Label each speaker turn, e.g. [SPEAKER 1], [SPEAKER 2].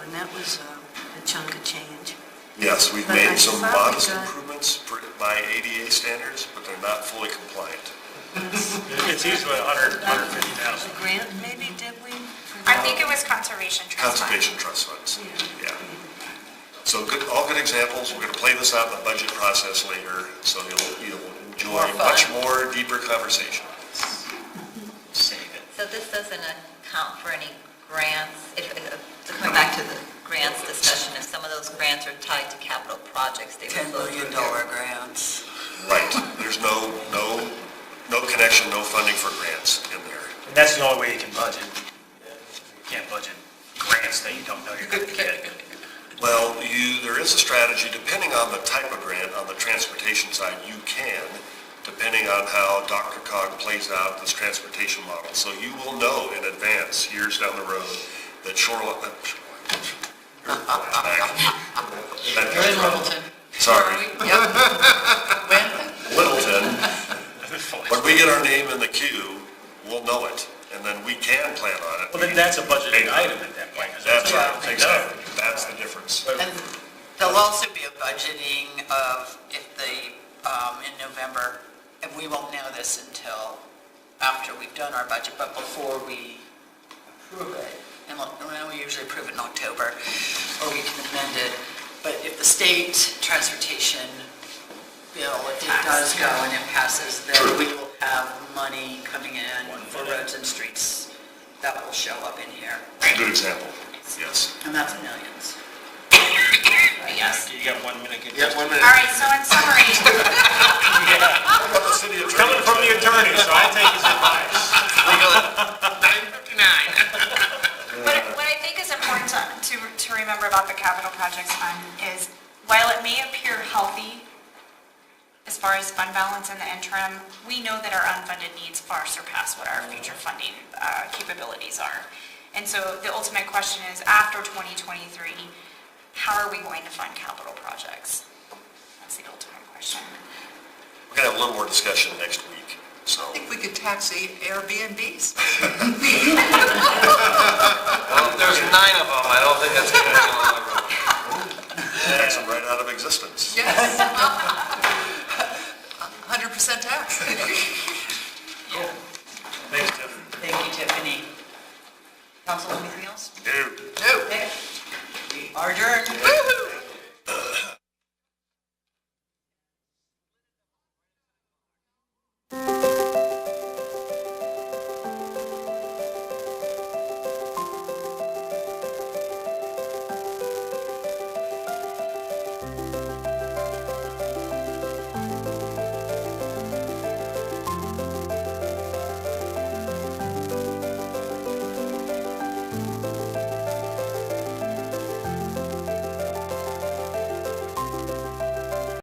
[SPEAKER 1] And that was uh, a chunk of change.
[SPEAKER 2] Yes, we've
[SPEAKER 1] But I
[SPEAKER 2] made some
[SPEAKER 1] thought we
[SPEAKER 2] modest
[SPEAKER 1] got-
[SPEAKER 2] improvements for- by ADA standards, but they're not fully compliant.
[SPEAKER 3] It's easily a hundred, hundred fifty
[SPEAKER 1] A
[SPEAKER 3] thousand.
[SPEAKER 1] grant maybe, did we?
[SPEAKER 4] I think it was Conservation Trust Fund.
[SPEAKER 2] Conservation trust funds, yeah. So good, all good examples, we're gonna play this out in the budget process later, so you'll, you'll enjoy
[SPEAKER 5] More fun.
[SPEAKER 2] much more deeper conversation. Save it.
[SPEAKER 5] So this doesn't account for any grants, if, if- to come back to the grants discussion, if some of those grants are tied to capital projects, they
[SPEAKER 6] $10
[SPEAKER 5] would go
[SPEAKER 6] million
[SPEAKER 5] through.
[SPEAKER 6] dollar grants.
[SPEAKER 2] Right, there's no, no, no connection, no funding for grants in there.
[SPEAKER 3] And that's the only way you can budget. You can't budget grants that you don't know you're gonna get.
[SPEAKER 2] Well, you, there is a strategy, depending on the type of grant, on the transportation side, you can, depending on how Dr. Cog plays out this transportation model. So you will know in advance, years down the road, that shoreline, uh,
[SPEAKER 6] You're in Littleton.
[SPEAKER 2] sorry,
[SPEAKER 6] Yep. When?
[SPEAKER 2] Littleton, when we get our name in the queue, we'll know it, and then we can plan on it.
[SPEAKER 3] Well, then that's a budgeted item at that point. 'cause
[SPEAKER 2] That's
[SPEAKER 3] it's
[SPEAKER 2] right,
[SPEAKER 3] done.
[SPEAKER 2] exactly, that's the difference.
[SPEAKER 3] But-
[SPEAKER 6] And there'll also be a budgeting of if the, um, in November, and we won't know this until after we've done our budget, but before we approve it, and look, well, we usually approve it in October, or we can amend it, but if the state transportation bill, if it does go and it passes, then we will have money coming in for roads and streets that will show up in here,
[SPEAKER 2] Good example, yes.
[SPEAKER 6] and that's millions.
[SPEAKER 4] Yes.
[SPEAKER 3] You got one minute.
[SPEAKER 2] Yeah, one
[SPEAKER 4] All right, so in summary,
[SPEAKER 3] Coming from the attorney, so I'll take his advice.
[SPEAKER 4] what, what I think is important to, to, to remember about the capital projects fund is while it may appear healthy as far as fund balance in the interim, we know that our unfunded needs far surpass what our future funding uh, capabilities are. And so the ultimate question is after 2023, how are we going to fund capital projects? That's the ultimate question.
[SPEAKER 2] We're gonna have a little more discussion next week, so.
[SPEAKER 6] I think we could tax the Airbnbs.
[SPEAKER 7] Well, there's nine of them, I don't think that's going to be a lot of room.
[SPEAKER 2] Tax them right out of existence.
[SPEAKER 6] Yes. 100% tax.
[SPEAKER 3] Thanks, Tiffany.
[SPEAKER 6] Thank you, Tiffany. Council, anything else?
[SPEAKER 2] Dude.
[SPEAKER 6] No. We are adjourned.